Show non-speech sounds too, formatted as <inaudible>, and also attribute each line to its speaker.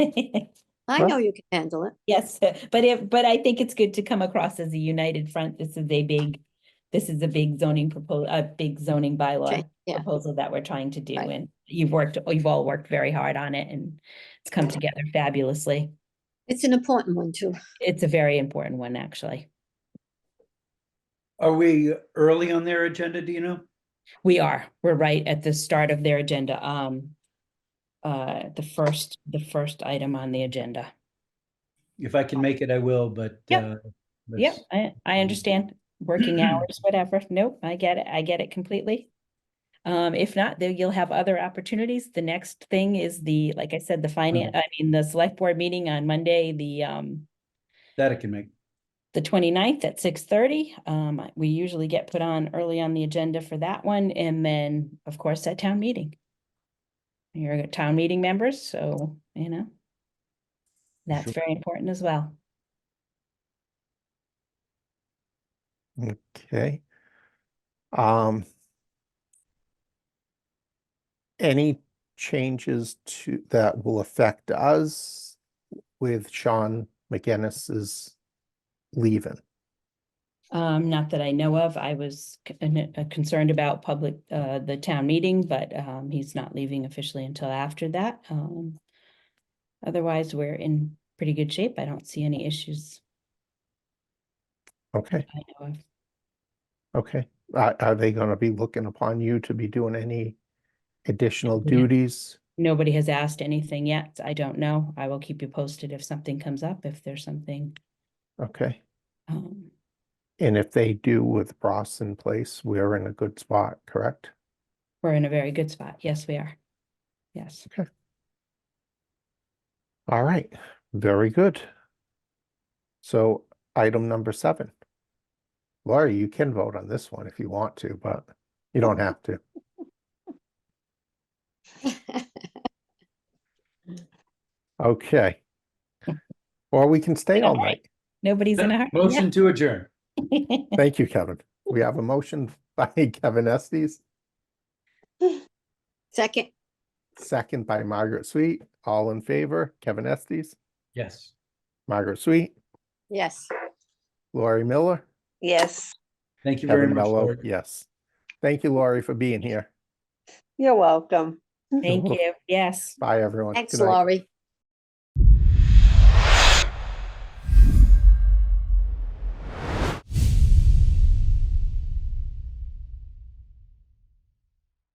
Speaker 1: I
Speaker 2: Well-
Speaker 1: know you can handle it.
Speaker 3: <laughs> Yes, but if, but I think it's good to come across as a united front. This is a big, this is a big zoning proposal, a big zoning bylaw
Speaker 1: Change, yeah.
Speaker 3: proposal that we're trying to do,
Speaker 1: Right.
Speaker 3: and you've worked, you've all worked very hard on it, and it's come together fabulously.
Speaker 1: It's an important one too.
Speaker 3: It's a very important one, actually.
Speaker 2: Are we early on their agenda, do you know?
Speaker 3: We are, we're right at the start of their agenda, um, uh, the first, the first item on the agenda.
Speaker 2: If I can make it, I will, but.
Speaker 3: Yep.
Speaker 2: uh,
Speaker 3: Yep,
Speaker 2: let's-
Speaker 3: I, I understand, working hours, whatever, nope, I get it, I get it completely. Um, if not, then you'll have other opportunities, the next thing is the, like I said, the finance, I mean, the select board meeting on Monday, the, um,
Speaker 2: That I can make.
Speaker 3: the 29th at six thirty, um, I- we usually get put on early on the agenda for that one, and then, of course, at town meeting. You're a town meeting members, so, you know. That's
Speaker 2: Sure.
Speaker 3: very important as well.
Speaker 4: Okay. Um. Any changes to, that will affect us with Sean McGinnis's leaving?
Speaker 3: Um, not that I know of. I was c- an- uh, concerned about public, uh, the town meeting, but, um, he's not leaving officially until after that. Um, otherwise, we're in pretty good shape. I don't see any issues
Speaker 4: Okay,
Speaker 3: I know of.
Speaker 4: okay. Are, are they gonna be looking upon you to be doing any additional
Speaker 3: Yeah.
Speaker 4: duties?
Speaker 3: Nobody has asked anything yet. I don't know. I will keep you posted if something comes up, if there's something.
Speaker 4: Okay,
Speaker 3: Um,
Speaker 4: and if they do with Ross in place, we're in a good spot, correct?
Speaker 3: we're in a very good spot. Yes, we are. Yes.
Speaker 4: All right, very good. So item number seven. Laura, you can vote on this one if you want to, but you don't have to. Okay. Or we can stay all
Speaker 3: All right.
Speaker 4: night.
Speaker 3: Nobody's in a hurry.
Speaker 2: Motion to adjourn.
Speaker 3: Yeah.
Speaker 4: Thank you, Kevin. We have a motion <laughs> by Kevin Estes,
Speaker 1: Second,
Speaker 4: second by Margaret Sweet. All in favor, Kevin Estes,
Speaker 2: Yes.
Speaker 4: Margaret Sweet,
Speaker 1: yes.
Speaker 4: Lori Miller,
Speaker 5: Yes,
Speaker 2: Thank you very
Speaker 4: Kevin
Speaker 2: much.
Speaker 4: Mello.
Speaker 2: Laura.
Speaker 4: Yes. Thank you, Laurie, for being here.
Speaker 5: you're welcome.
Speaker 3: <laughs> Thank you. Yes.
Speaker 4: Bye, everyone.
Speaker 1: Thanks,
Speaker 4: Good night.
Speaker 1: Laurie.